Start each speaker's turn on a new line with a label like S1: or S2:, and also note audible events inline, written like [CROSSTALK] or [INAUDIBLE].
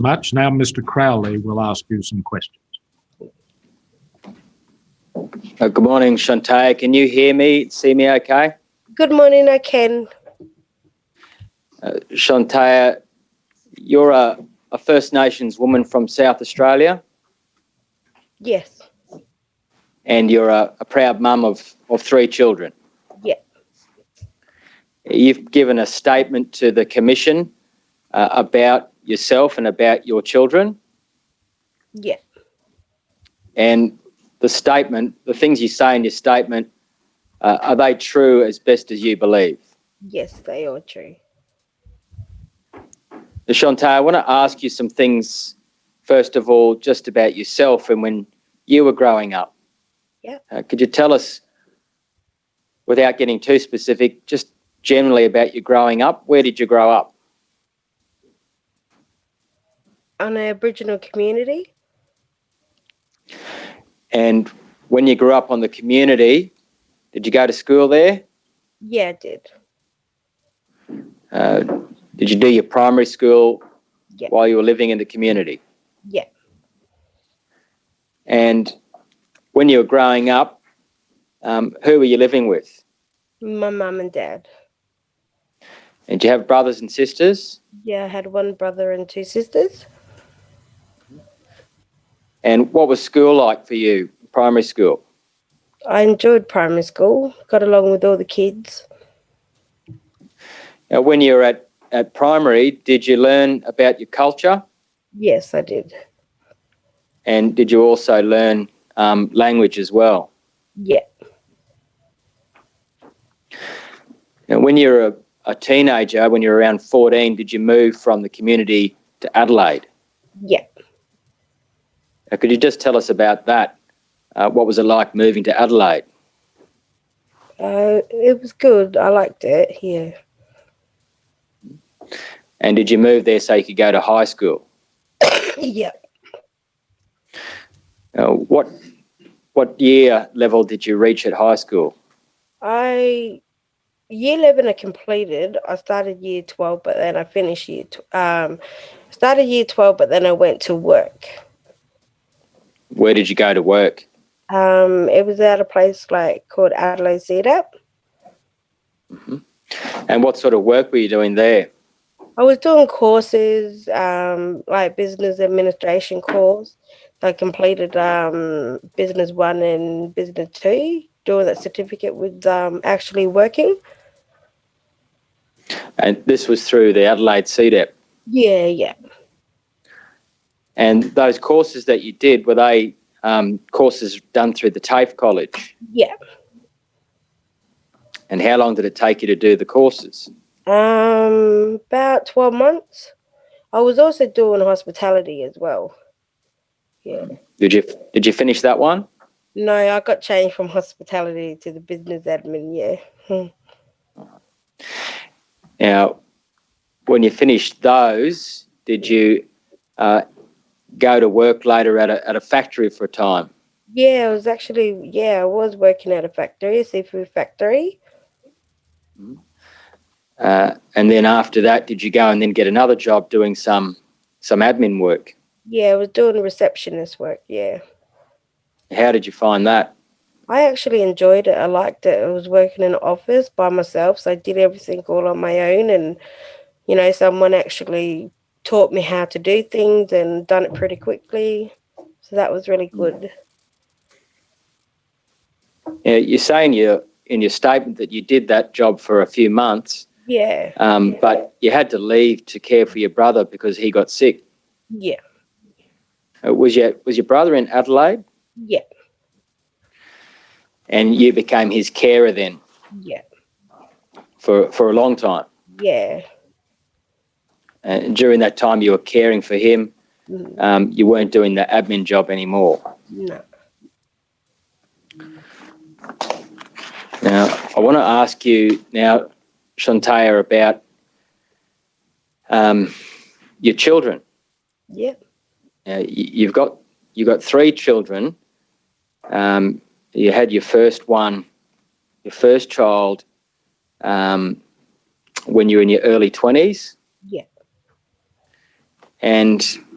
S1: much. Now, Mr. Crowley will ask you some questions.
S2: Uh, good morning, Shantae. Can you hear me, see me okay?
S3: Good morning, I can.
S2: Uh, Shantae, you're a, a First Nations woman from South Australia
S3: Yes,
S2: and you're a, a proud mum of, of three children.
S3: Yeah.
S2: You've given a statement to the Commission uh, about yourself and about your children.
S3: yeah,
S2: And the statement, the things you say in your statement, uh, are they true as best as you believe?
S3: yes, they are true.
S2: Now, Shantae, I want to ask you some things, first of all, just about yourself and when you were growing up.
S3: Yeah.
S2: Uh, could you tell us, without getting too specific, just generally about your growing up? Where did you grow up?
S3: On an Aboriginal community,
S2: And when you grew up on the community, did you go to school there?
S3: yeah, I did.
S2: Uh, did you do your primary school
S3: Yeah.
S2: while you were living in the community?
S3: Yeah.
S2: And when you were growing up, um, who were you living with?
S3: My mum and dad.
S2: And do you have brothers and sisters?
S3: Yeah, I had one brother and two sisters.
S2: And what was school like for you, primary school?
S3: I enjoyed primary school, got along with all the kids.
S2: Now, when you were at, at primary, did you learn about your culture?
S3: Yes, I did.
S2: And did you also learn um, language as well?
S3: Yeah,
S2: Now, when you were a, a teenager, when you were around 14, did you move from the community to Adelaide?
S3: yeah.
S2: Now, could you just tell us about that? Uh, what was it like moving to Adelaide?
S3: Uh, it was good. I liked it. Yeah. [COUGHS]
S2: And did you move there so you could go to high school?
S3: Yeah.
S2: Now, Uh, what, what year level did you reach at high school?
S3: I year eleven I completed. I started year twelve, but then I finished year tw- um started year twelve, but then I went to work.
S2: Where did you go to work?
S3: Um, it was at a place like called Adelaide Setup.
S2: And what sort of work were you doing there?
S3: I was doing courses, um, like business administration course. I completed um business one and business two. Doing that certificate with um actually working.
S2: and this was through the Adelaide E CDEP.
S3: Yeah, yeah.
S2: And those courses that you did were they um, courses done through the TAFE college?
S3: Yeah.
S2: And how long did it take you to do the courses?
S3: Um, about 12 months. I was also doing hospitality as well. Yeah.
S2: Did you did you finish that one?
S3: No, I got changed from [LAUGHS] hospitality to the business admin. Yeah.
S2: Now, when you finished those, did you uh, go to work later at a, at a factory for a time?
S3: Yeah, I was actually, yeah, I was working at a factory, a seafood factory.
S2: Uh, and then after that, did you go and then get another job doing some some admin work?
S3: Yeah, I was doing receptionist work. Yeah.
S2: How did you find that?
S3: I actually enjoyed it. I liked it. I was working in an office by myself, so I did everything all on my own. And, you know, someone actually taught me how to do things and done it pretty quickly. So that was really good.
S2: Yeah, you say in your in your statement that you did that job for a few months,
S3: Yeah.
S2: um, but you had to leave to care for your brother because he got sick.
S3: Yeah.
S2: Uh, Was your was your brother in Adelaide,
S3: Yeah.
S2: and you became his carer then
S3: Yeah.
S2: for for a long time.
S3: Yeah.
S2: And during that time, you were caring for him.
S3: Mm,
S2: Um, you weren't doing the admin job anymore.
S3: No.
S2: Now, I want to ask you now, Shantaya, about um, your children.
S3: Yeah.
S2: Now, y- you've got you've got three children. Um, you had your first one, your first child, um, when you were in your early twenties.
S3: Yeah.
S2: And